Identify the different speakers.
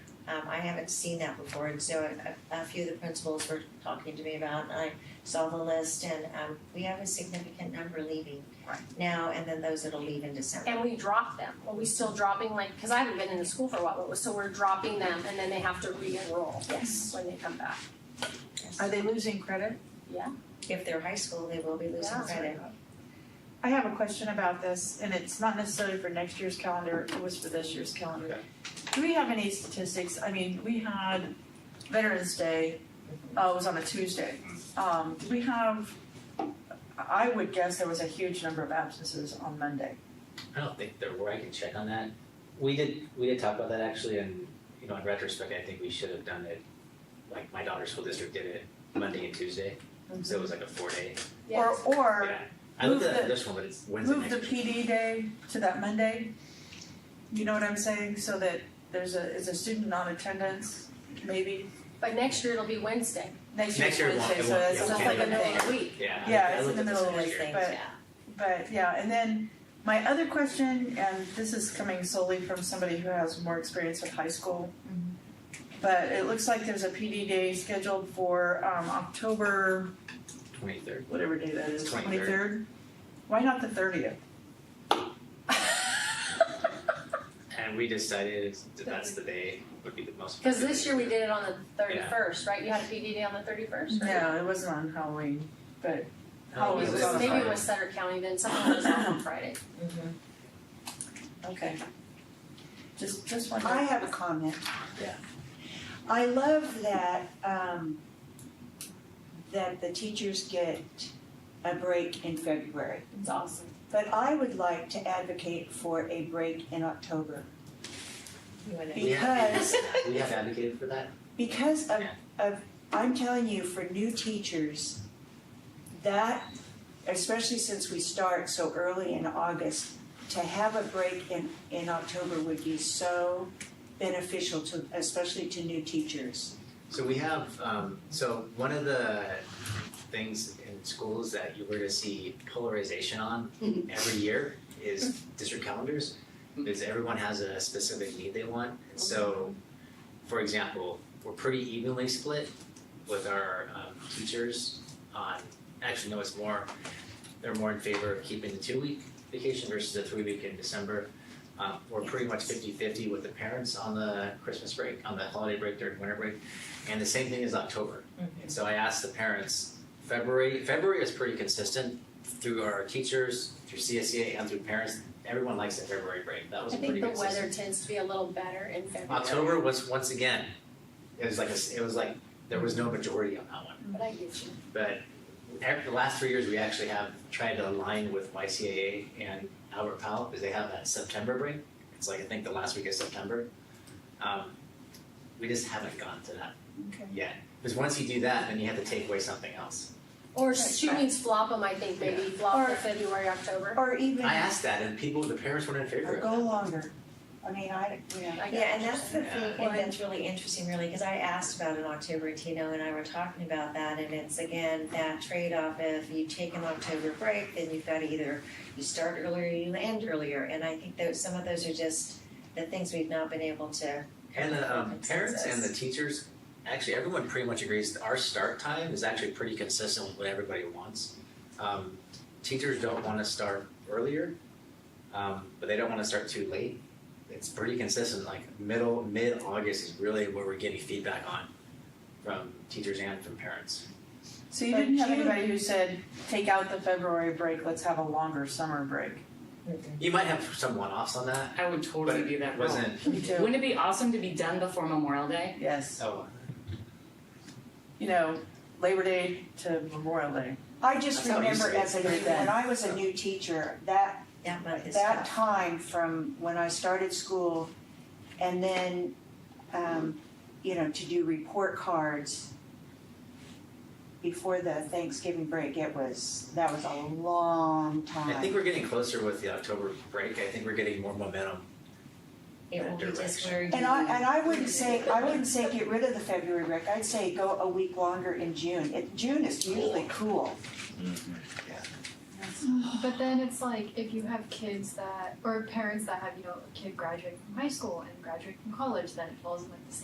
Speaker 1: Um, I haven't seen that before, and so a, a few of the principals were talking to me about, and I saw the list, and, um, we have a significant number leaving
Speaker 2: Right.
Speaker 1: now, and then those that'll leave in December.
Speaker 2: And we drop them, are we still dropping like, cause I haven't been in the school for a while, but so we're dropping them and then they have to re-enroll
Speaker 1: Yes.
Speaker 2: when they come back.
Speaker 3: Are they losing credit?
Speaker 1: If they're high school, they will be losing
Speaker 2: Yeah.
Speaker 1: credit.
Speaker 3: I have a question about this, and it's not necessarily for next year's calendar, it was for this year's calendar. Do we have any statistics, I mean, we had Veterans Day, uh, it was on a Tuesday.
Speaker 4: Mm-hmm.
Speaker 3: Um, do we have, I would guess there was a huge number of absences on Monday.
Speaker 4: I don't think there were, I can check on that. We did, we did talk about that actually, and, you know, in retrospect, I think we should have done it, like, my daughter's school district did it Monday and Tuesday, so it was like a four day,
Speaker 3: Or,
Speaker 2: Yes.
Speaker 3: or
Speaker 4: yeah. I looked
Speaker 3: Move
Speaker 4: at that
Speaker 3: the-
Speaker 4: this one, but it's Wednesday
Speaker 3: move
Speaker 4: next
Speaker 3: the
Speaker 4: week.
Speaker 3: PD day to that Monday. You know what I'm saying, so that there's a, is a student non-attendance, maybe,
Speaker 2: But next year it'll be Wednesday,
Speaker 3: next year's
Speaker 4: Next year it won't-
Speaker 3: Wednesday,
Speaker 4: it
Speaker 3: so
Speaker 4: won't-
Speaker 3: that's
Speaker 4: it
Speaker 2: so
Speaker 3: just
Speaker 2: it's
Speaker 4: won't
Speaker 3: like a thing.
Speaker 2: like
Speaker 4: be
Speaker 2: in the middle of the week.
Speaker 4: Yeah. I-
Speaker 3: Yeah,
Speaker 4: I
Speaker 3: it's in
Speaker 4: looked
Speaker 3: the
Speaker 4: at this
Speaker 3: middle of
Speaker 4: last
Speaker 3: the
Speaker 4: year.
Speaker 1: Things,
Speaker 3: but-
Speaker 1: yeah.
Speaker 3: But yeah, and then my other question, and this is coming solely from somebody who has more experience with high school.
Speaker 1: Mhm.
Speaker 3: But it looks like there's a PD day scheduled for um October,
Speaker 4: Twenty-third.
Speaker 3: whatever day that is, twenty
Speaker 4: 23rd.
Speaker 3: third. Why not the thirtieth?
Speaker 4: And we decided that that's the day would be the most.
Speaker 2: cause this year we did it on the thirty
Speaker 4: Yeah.
Speaker 2: first, right, you had a PD day on the thirty first, right?
Speaker 3: No, it wasn't on Halloween, but
Speaker 4: Oh,
Speaker 3: Oh, it
Speaker 4: it was
Speaker 3: was on
Speaker 4: this
Speaker 2: Maybe it
Speaker 4: Friday.
Speaker 2: was Sutter County then, something was off on Friday.
Speaker 1: Mhm.
Speaker 3: okay. Just just one.
Speaker 5: I have a comment.
Speaker 4: Yeah.
Speaker 5: I love that, um, that the teachers get a break in February.
Speaker 2: It's awesome.
Speaker 5: But I would like to advocate for a break in October
Speaker 1: You wanna-
Speaker 4: We have-
Speaker 5: because,
Speaker 4: We have advocated for that.
Speaker 5: because of,
Speaker 4: Yeah.
Speaker 5: of, I'm telling you, for new teachers, that, especially since we start so early in August, to have a break in, in October would be so beneficial to, especially to new teachers.
Speaker 4: So we have, um, so one of the things in schools that you were to see polarization on every year is district calendars. Is everyone has a specific need they want, and so, for example, we're pretty evenly split with our um teachers on, actually, no, it's more, they're more in favor of keeping the two-week vacation versus the three-week in December. Um, we're pretty much 50-50 with the parents on the Christmas break, on the holiday break during winter break. And the same thing is October.
Speaker 1: Mhm.
Speaker 4: And so I asked the parents, February, February is pretty consistent through our teachers, through CSEA and through parents. Everyone likes the February break. That
Speaker 2: I
Speaker 4: was
Speaker 2: think
Speaker 4: pretty
Speaker 2: the
Speaker 4: consistent.
Speaker 2: weather tends to be a little better in February.
Speaker 4: October was once again, it was like, a s it was like, there was no majority on that one.
Speaker 2: But I get you.
Speaker 4: But ev- the last three years, we actually have tried to align with YCAA and Albert Powell because they have that September break. It's like I think the last week of September. Um, we just haven't gone to that
Speaker 5: Okay.
Speaker 4: yet. Because once you do that, then you have to take away something else.
Speaker 2: Or
Speaker 5: Right,
Speaker 2: she
Speaker 5: right.
Speaker 2: means flop them, I think, maybe flop the February, October.
Speaker 5: Or even,
Speaker 4: I asked that, and people, the parents weren't in favor
Speaker 5: or
Speaker 4: of
Speaker 5: go
Speaker 4: it.
Speaker 5: longer. I mean, I, yeah.
Speaker 2: I get
Speaker 1: Yeah, and
Speaker 2: you.
Speaker 1: that's the thing,
Speaker 2: Yeah.
Speaker 1: and that's really interesting really, cause I asked about it in October, Tino and I were talking about that, and it's again, that trade-off of you take an October break, then you've gotta either, you start earlier, you end earlier, and I think those, some of those are just the things we've not been able to.
Speaker 4: And the um, parents and the
Speaker 1: Consensus.
Speaker 4: teachers, actually, everyone pretty much agrees that our start time is actually pretty consistent with what everybody wants. Um, teachers don't want to start earlier, um, but they don't want to start too late. It's pretty consistent, like middle, mid August is really what we're getting feedback on from teachers and from parents.
Speaker 3: So you
Speaker 5: But
Speaker 3: didn't have
Speaker 5: June-
Speaker 3: anybody who said, take out the February break, let's have a longer summer break.
Speaker 4: You might have some one offs on that,
Speaker 6: I would totally
Speaker 4: But
Speaker 6: do that. role.
Speaker 4: wasn't,
Speaker 3: Me too.
Speaker 6: Wouldn't it be awesome to be done before Memorial Day?
Speaker 3: Yes,
Speaker 4: oh,
Speaker 3: you know, Labor Day to Memorial Day.
Speaker 5: I just
Speaker 4: That's how it used
Speaker 5: remember
Speaker 4: to be.
Speaker 5: as a, when I was a new teacher, that,
Speaker 1: That month is
Speaker 5: that
Speaker 1: tough.
Speaker 5: time from when I started school and then, um, you know, to do report cards before the Thanksgiving break, it was, that was a long time.
Speaker 4: I think we're getting closer with the October break. I think we're getting more momentum.
Speaker 1: It will be just
Speaker 4: Direction.
Speaker 1: where you.
Speaker 5: And I, and I wouldn't say, I wouldn't say get rid of the February break, I'd say go a week longer in June. It, June is usually cool.
Speaker 7: But then it's like if you have kids that or parents that have you know a kid graduating from high school and graduating from college, then it falls in like the same.